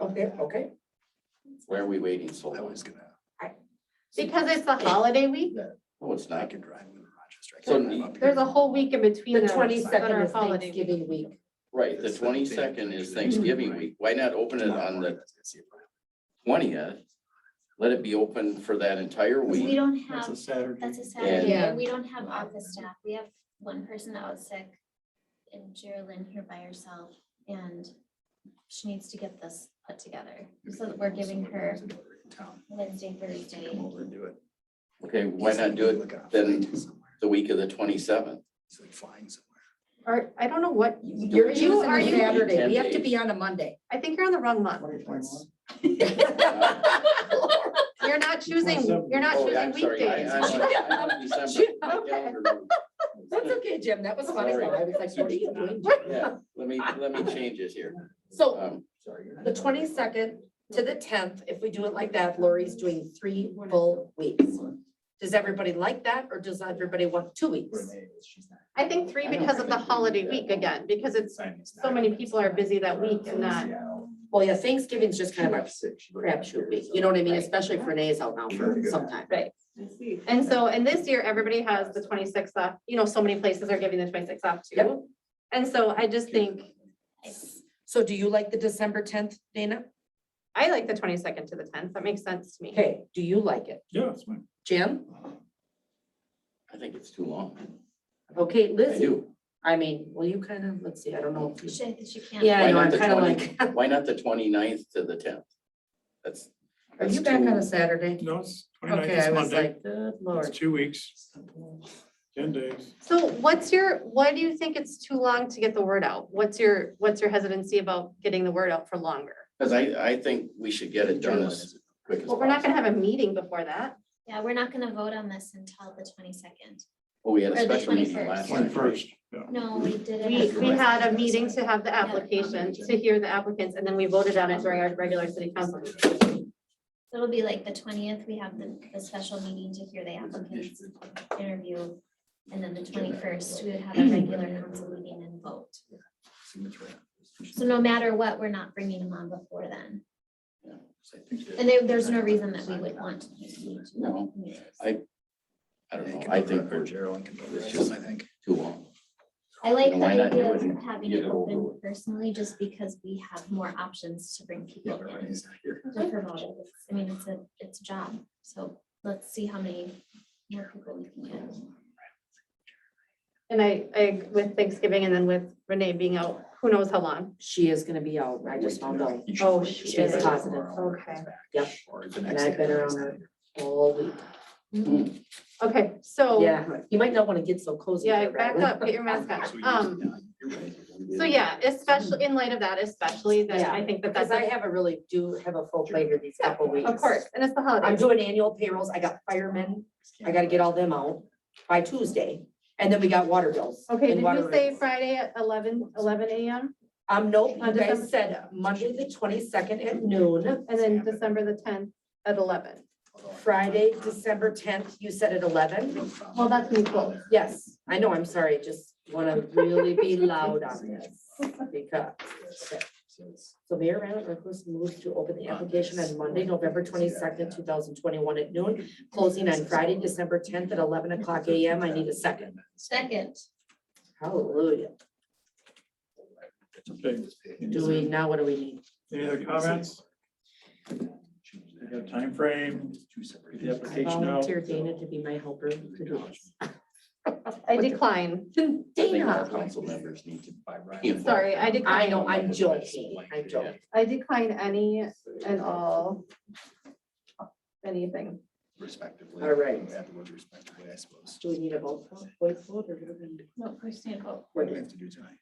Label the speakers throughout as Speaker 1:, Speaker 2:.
Speaker 1: Okay, okay.
Speaker 2: Why are we waiting so
Speaker 3: I
Speaker 2: long?
Speaker 3: was gonna.
Speaker 4: Because it's the holiday week,
Speaker 2: No, it's
Speaker 3: I
Speaker 2: not.
Speaker 3: can drive into Rochester. I
Speaker 2: So
Speaker 3: can drive up here.
Speaker 4: there's a whole week in between.
Speaker 5: The
Speaker 4: those, but
Speaker 5: twenty-second
Speaker 4: our
Speaker 5: is
Speaker 4: holiday week.
Speaker 5: Thanksgiving week.
Speaker 2: Right, the twenty-second is Thanksgiving week. Why not open it on the twentieth? Let it be open for that entire
Speaker 6: We
Speaker 2: week.
Speaker 6: don't
Speaker 3: That's a
Speaker 6: have,
Speaker 3: Saturday.
Speaker 6: that's a
Speaker 2: And-
Speaker 6: Saturday,
Speaker 5: Yeah.
Speaker 6: and we don't have office staff, we have one person that was sick. And Geraldine here by herself, and she needs to get this put together, so that we're giving
Speaker 3: Someone
Speaker 6: her
Speaker 3: who's in town,
Speaker 6: Wednesday,
Speaker 3: to
Speaker 6: Thursday.
Speaker 3: Come over and do it.
Speaker 2: Okay, why
Speaker 3: He's
Speaker 2: not
Speaker 3: like,
Speaker 2: do it
Speaker 3: "Look, I'm
Speaker 2: then-
Speaker 3: flying somewhere."
Speaker 2: the week of the twenty-seventh?
Speaker 3: He's like flying somewhere.
Speaker 5: Or, I don't know what,
Speaker 2: You-
Speaker 5: you're
Speaker 2: you-
Speaker 5: using
Speaker 2: are
Speaker 5: a
Speaker 2: you-
Speaker 5: Saturday, we have to
Speaker 2: Ten
Speaker 5: be on a Monday.
Speaker 4: I think you're on the wrong month. You're not choosing, you're not
Speaker 2: Oh,
Speaker 4: choosing weekdays.
Speaker 5: That's okay, Jim, that was funny,
Speaker 2: Sorry.
Speaker 5: I was like, what are you doing?
Speaker 2: Yeah, let me, let me change it here.
Speaker 5: So
Speaker 2: Um,
Speaker 3: Sorry, you're not-
Speaker 5: the twenty-second to the tenth, if we do it like that, Lori's doing three full weeks. Does everybody like that, or does everybody want two weeks?
Speaker 3: Renee is- she's not-
Speaker 4: I think three
Speaker 2: I don't
Speaker 4: because of the
Speaker 2: think we
Speaker 4: holiday
Speaker 2: need
Speaker 4: week
Speaker 2: that.
Speaker 4: again, because it's,
Speaker 3: Simon's
Speaker 4: so
Speaker 3: not-
Speaker 4: many people are busy that week and not-
Speaker 3: Seattle.
Speaker 5: Well, yeah, Thanksgiving's just kind of a
Speaker 3: Six.
Speaker 5: crapshoot week, you know what I mean, especially if Renee's out now for some time.
Speaker 4: Right. and so, and this year, everybody has the twenty-sixth off, you know, so many places are giving the twenty-sixth off
Speaker 5: Yep.
Speaker 4: too. And so I just think,
Speaker 5: So do you like the December tenth, Dana?
Speaker 4: I like the twenty-second to the tenth, that makes sense to me.
Speaker 5: Okay, do you like it?
Speaker 3: Yeah, it's fine.
Speaker 5: Jim?
Speaker 2: I think it's too long.
Speaker 5: Okay,
Speaker 2: I
Speaker 5: Lizzie,
Speaker 2: do.
Speaker 5: I mean, well, you kind of, let's see, I don't know. if you-
Speaker 6: She, she can't.
Speaker 5: Yeah, I
Speaker 2: Why
Speaker 5: know,
Speaker 2: not
Speaker 5: I'm
Speaker 2: the
Speaker 5: kind of like,
Speaker 2: 20 Why not the 29th to the tenth? That's.
Speaker 5: are
Speaker 2: that's
Speaker 5: you back
Speaker 2: too-
Speaker 5: on a Saturday?
Speaker 7: No, it's twenty-ninth
Speaker 5: Okay, I
Speaker 7: is
Speaker 5: was
Speaker 7: Monday.
Speaker 5: like, good
Speaker 7: It's
Speaker 5: lord.
Speaker 7: two weeks, ten days.
Speaker 4: So what's your, why do you think it's too long to get the word out? What's your, what's your hesitancy about getting the word out for longer?
Speaker 2: Cause I, I think we should get it done as quick as
Speaker 4: Well, we're not
Speaker 2: possible.
Speaker 4: gonna have a meeting before that.
Speaker 6: Yeah, we're not gonna vote on this until the twenty-second.
Speaker 2: Well, Oh, we had a
Speaker 6: or the
Speaker 2: special meeting
Speaker 6: 21st.
Speaker 2: last night.
Speaker 7: Twenty-first, yeah.
Speaker 6: No, we did it.
Speaker 4: We,
Speaker 6: at
Speaker 4: we
Speaker 6: the-
Speaker 4: had a meeting to have the application, to hear the applicants, and then we voted on it during our regular city council. meeting.
Speaker 6: It'll be like the twentieth, we have the, the special meeting to hear the applicants interview. And then the twenty-first, we would have a regular council meeting and vote.
Speaker 3: Signature.
Speaker 6: So no matter what, we're not bringing them on before then.
Speaker 3: So I think that-
Speaker 6: And there, there's no reason that we would want to. use these
Speaker 2: No,
Speaker 6: meetings.
Speaker 2: I- I don't
Speaker 3: Renee
Speaker 2: know.
Speaker 3: can
Speaker 2: I
Speaker 3: cover
Speaker 2: think
Speaker 3: it, or
Speaker 2: we're
Speaker 3: Geraldine can cover
Speaker 2: it's
Speaker 3: it,
Speaker 2: just-
Speaker 3: I think.
Speaker 2: too long.
Speaker 6: I like
Speaker 2: And
Speaker 6: the
Speaker 2: why not do
Speaker 6: idea
Speaker 2: it and
Speaker 6: of having
Speaker 2: get
Speaker 6: it
Speaker 2: it over
Speaker 6: open
Speaker 2: with?
Speaker 6: personally, just because we have more options to bring
Speaker 3: Yeah,
Speaker 6: people
Speaker 3: but
Speaker 6: in.
Speaker 3: Renee's not here.
Speaker 6: To promote it, It's- I mean, it's a, it's a job, so let's see how many more people we can get.
Speaker 4: And I, I, with Thanksgiving and then with Renee being out, who knows how long.
Speaker 5: She is gonna be out, I just
Speaker 3: Wait to
Speaker 5: found
Speaker 3: know.
Speaker 5: out,
Speaker 3: You should
Speaker 4: Oh,
Speaker 3: wait to
Speaker 4: she
Speaker 3: see
Speaker 5: is
Speaker 3: if
Speaker 5: positive.
Speaker 3: tomorrow or
Speaker 4: Okay.
Speaker 3: back,
Speaker 5: Yep.
Speaker 3: Or the
Speaker 5: And
Speaker 3: next.
Speaker 5: I've
Speaker 3: day,
Speaker 5: been
Speaker 3: the next
Speaker 5: around
Speaker 3: day.
Speaker 5: all week.
Speaker 6: Mm-hmm.
Speaker 4: Okay, so.
Speaker 5: Yeah, you might not wanna get so cozy.
Speaker 4: Yeah,
Speaker 5: here,
Speaker 4: back
Speaker 5: Brad.
Speaker 4: up, get your mask
Speaker 3: So we
Speaker 4: on.
Speaker 3: need to-
Speaker 4: Um,
Speaker 3: yeah, you're right.
Speaker 4: so yeah, especially, in light of that especially, that I think that that's,
Speaker 5: Because I
Speaker 4: a-
Speaker 5: have a really, do have a full plate here these couple weeks.
Speaker 4: of course, and it's the holiday.
Speaker 5: I'm doing annual payrolls, I got firemen, I gotta get all them out by Tuesday, and then we got water bills.
Speaker 4: Okay,
Speaker 5: and
Speaker 4: did
Speaker 5: water
Speaker 4: you say
Speaker 5: rates.
Speaker 4: Friday at 11 11 AM
Speaker 5: Um, nope,
Speaker 4: on
Speaker 5: you guys
Speaker 4: December-
Speaker 5: said Monday, the twenty-second at noon,
Speaker 4: and then December the tenth at eleven?
Speaker 5: Friday, December tenth, you said at eleven?
Speaker 4: Well, that's me close.
Speaker 5: Yes, I know, I'm sorry, just wanna really be loud on this, because. So Mayor Ryan Reckles moved to open the application on Monday, November twenty-second, two thousand twenty-one at noon, closing on Friday, December tenth at eleven o'clock AM, I need a second.
Speaker 6: Second,
Speaker 5: Hallelujah.
Speaker 7: Okay,
Speaker 5: Do we, now what do we need?
Speaker 7: any other comments? We got a timeframe, get the
Speaker 5: I
Speaker 7: application out.
Speaker 5: volunteer Dana to be my helper. to do this.
Speaker 4: I decline.
Speaker 2: I think all
Speaker 5: Dana,
Speaker 2: council members need to
Speaker 3: By right.
Speaker 2: be involved.
Speaker 4: Sorry, I decline.
Speaker 5: I know, I'm joking, I'm joking.
Speaker 4: I decline any and all. Anything.
Speaker 3: Respectively.
Speaker 5: All right.
Speaker 3: Add the word respectively, I suppose.
Speaker 5: Do we need a vote? Voice vote or?
Speaker 6: no, we stand vote.
Speaker 3: What do we have to do tonight?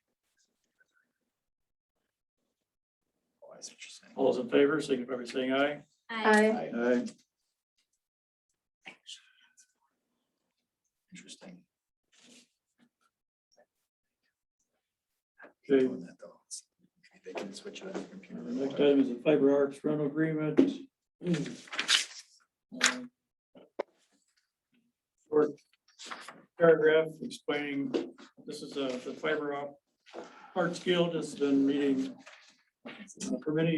Speaker 3: Oh, I see what you're saying.
Speaker 7: All those in favor, signify by saying aye.
Speaker 6: I,
Speaker 4: I,
Speaker 7: Aye.
Speaker 3: Interesting.
Speaker 7: Okay.
Speaker 3: Doing that though. Maybe They can switch it on the computer.
Speaker 7: The next item is the fiber arts rental agreement. Um, Short paragraph explaining, this is uh, the fiber op- arts guild has been meeting uh, for many